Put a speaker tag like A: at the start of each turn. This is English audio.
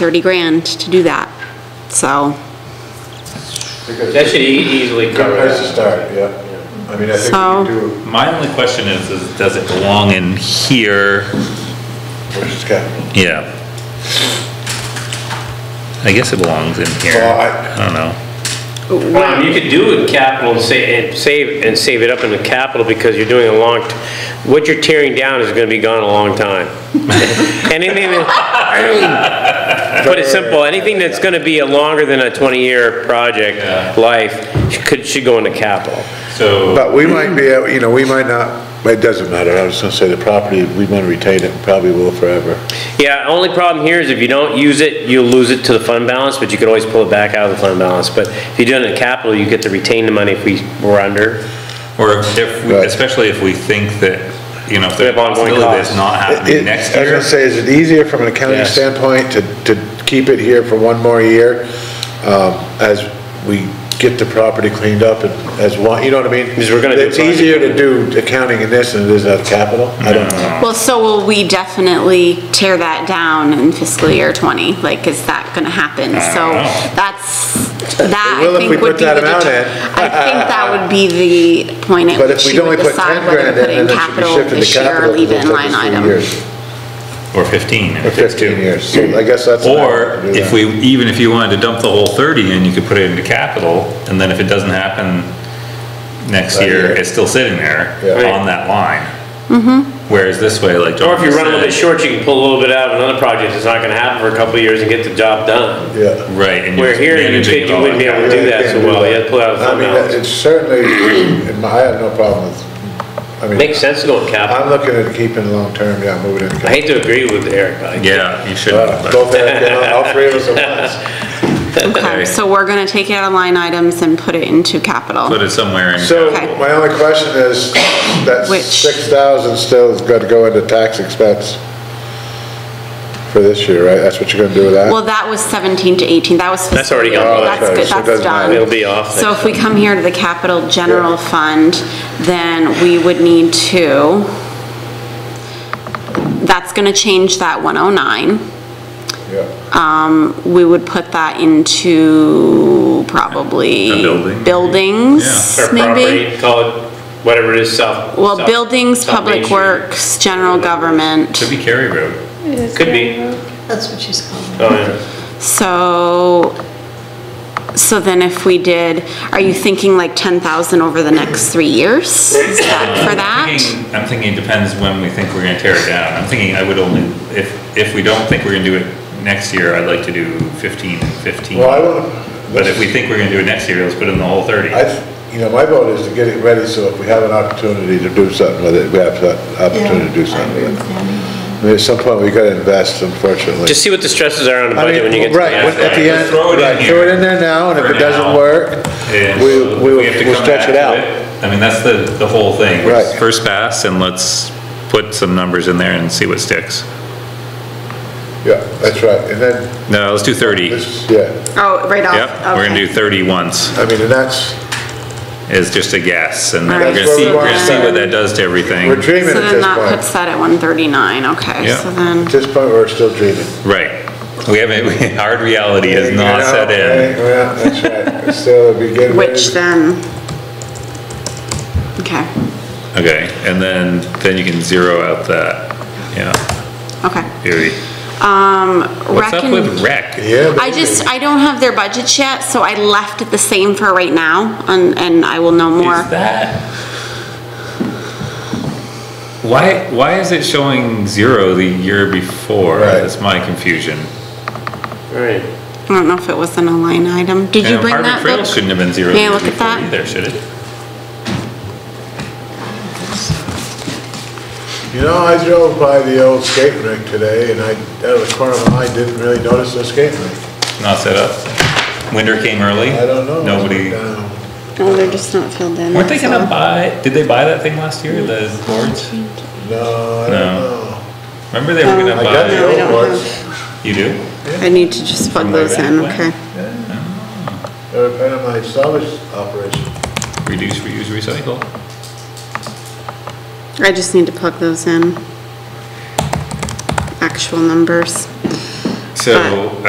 A: 30 grand to do that. So,
B: That should e- easily
C: Good
B: cover
C: place to
B: it.
C: start, yeah. I mean, I think
A: So-
C: we can do,
D: My only question is, is does it belong in here?
C: where's Scott?
D: Yeah. I guess it belongs in here.
C: Well,
D: I
C: I-
D: don't know.
B: Um, you could do it capital and sa- and save, and save it up in the capital because you're doing a long, t- what you're tearing down is gonna be gone a long time. Anything, that- put it simple, anything that's gonna be a longer than a 20-year project life could, should go into capital.
D: So,
C: But we might be, able- you know, we might not, it doesn't matter, I was gonna say the property, we might retain it, probably will forever.
B: Yeah, only problem here is if you don't use it, you'll lose it to the fund balance, but you could always pull it back out of the fund balance. But if you do it in capital, you get to retain the money if we were under.
D: or if, we-
C: Right.
D: especially if we think that, you know, if there's a
B: have ongoing
D: possibility that's
B: costs.
D: not happening
C: It-
D: next
C: I was
D: year.
C: gonna say, is it easier from an accounting
B: Yes.
C: standpoint to, to keep it here for one more year? Um, as we get the property cleaned up and as one, you know what I mean?
B: Because we're gonna do
C: It's
B: budget.
C: easier to do accounting in this than it is of capital, I don't know.
A: well, so will we definitely tear that down in fiscal year 20? Like, is that gonna happen? So,
D: know.
A: that's, that
C: will
A: I
C: if we
A: think would
C: put
A: be the...
C: that amount
A: deter-
C: in.
A: I think that would be the point at
C: But if
A: which
C: we'd
A: you
C: only
A: would
C: put ten
A: decide whether
C: grand
A: to put it
C: in,
A: in
C: then it should be
A: capital
C: shifted
A: this
C: to
A: year or
C: capital,
A: leave it
C: because
A: in
C: it
A: line
C: took us three
A: item.
C: years,
D: Or 15.
C: or
D: if it's
C: fifteen
D: two.
C: years, so I guess that's. an
D: Or
C: option to do
D: if
C: that.
D: we, even if you wanted to dump the whole 30 in, you could put it into capital, and then if it doesn't happen next
C: Right
D: year,
C: here.
D: it's still sitting there
C: Yeah.
D: on that line. Whereas this way, like
B: Or
D: John
B: if you run a little bit
D: said,
B: short, you can pull a little bit out of another project that's not gonna happen for a couple of years and get the job done.
C: Yeah.
D: right, and you're
B: Where here, you
D: managing
B: think
D: it
B: you
D: all.
B: wouldn't be able to do that so well, you have to pull it out of the
C: I
B: fund
C: mean, that-
B: balance.
C: it's certainly, in my- I have no problem with, I mean,
B: Makes sense to go in capital.
C: I'm looking at keeping long-term, yeah, moving in.
B: I hate to agree with Eric, I
D: Yeah, you should,
C: Uh,
D: but
C: Both, Eric and I, all three of us at once.
A: Okay,
D: Okay.
A: so we're gonna take it out of line items and put it into
D: put
A: capital.
D: it somewhere in.
C: So
A: Okay.
C: my only question is, that
A: Which?
C: six thousand still is gonna go into tax expense for this year, right? That's what you're gonna do with that?
A: Well, that was 17 to 18, that was
B: That's already
A: fiscal year.
B: gone. Oh,
C: that's right, so it
A: That's good, that's
C: doesn't matter.
A: done.
B: It'll be off
A: So
B: next
A: if we come here to the capital general fund, then we would need to, that's gonna change that 109.
C: Yeah.
A: We would put that into probably.
D: A building.
A: Buildings,
B: Or
A: maybe?
B: property, call it whatever it is, south.
A: Well,
B: south-
A: buildings,
B: South Main
A: public
B: Street.
A: works, general government.
D: Could be Cary Road.
B: Could be.
E: That's what she's calling it.
B: Oh, yeah.
A: So, so then if we did, are you thinking like 10,000 over the next three years? Is that for that?
D: Thinking- I'm thinking it depends when we think we're gonna tear it down. I'm thinking I would only, if, if we don't think we're gonna do it next year, I'd like to do 15 and 15.
C: Well, I would.
D: But if we think we're gonna do it next year, let's put in the whole 30.
C: I, th- you know, my vote is to get it ready, so if we have an opportunity to do something with it, we have that opportunity to do
E: Yeah, I
C: something
E: agree
C: with
E: with
C: it.
E: Danny.
C: I mean, at some point, we gotta invest, unfortunately.
B: Just see what the stresses are on the
C: I
B: budget when you
C: mean,
B: get to the
C: right,
B: end.
D: aspect.
C: at the
D: Just
C: end,
D: throw it in
C: right, throw
D: here
C: it in there now, and if
D: for
C: it doesn't
D: now.
C: work,
D: And
C: we,
D: so
C: we
D: we have to
C: will
D: come
C: stretch
D: back
C: it
D: to
C: out.
D: it. I mean, that's the, the whole thing.
C: Right.
D: First pass and let's put some numbers in there and see what sticks.
C: Yeah, that's right, and then,
D: No, let's do 30. Yep,
C: this, yeah,
A: Oh, right off?
D: we're gonna do 30 once,
C: I mean, and that's,
D: is just a guess, and then we're
A: Alright.
D: gonna
C: That's
D: see,
C: where we
D: we're
C: wanna
D: gonna see
C: start.
D: what that does to everything.
C: we're dreaming
A: So
C: at
A: then
C: this
A: that puts
C: point.
A: that at 139, okay,
D: Yeah.
A: so then,
C: At this point, we're still dreaming.
D: Right. We haven't, we- hard reality has not
C: Yeah,
D: set in.
C: right, Well, that's right, It's still the beginning.
A: which then? Okay,
D: Okay, and then, then you can zero out that, yeah,
A: okay.
D: theory. What's up
A: Recon-
D: with rec?
C: Yeah.
A: I just, I don't have their budgets yet, so I left it the same for right now, and, and I will know more.
D: Is that? Why, why is it showing zero the year before?
C: Right.
D: That's my confusion.
B: Right.
A: I don't know if it was in a line item. Did you
D: And
A: bring
D: Harvard
A: that
D: Trail
A: book?
D: Shouldn't have been zero the
A: May I
D: year
A: look at
D: before
A: that?
D: either, should it?
C: You know, I drove by the old skate rink today, and I, out of the corner of my eye, didn't really notice the skate rink.
D: Not set up? Winter came early?
C: I don't know.
D: Nobody,
C: Um,
A: No, they're just not filled in.
D: weren't they
A: so-
D: gonna buy, did they buy that thing last year, the boards?
C: No, I don't
D: No.
C: know.
D: Remember they were
C: I
A: No,
C: got the
A: we
D: gonna buy,
A: don't
C: old ones,
D: you do?
A: I need to just plug
D: Remember
A: those
D: that
A: in,
D: one?
A: okay.
C: they were part of my salvage operation.
D: Reduce, reuse, recycle.
A: I just need to plug those in. Actual numbers.
D: So,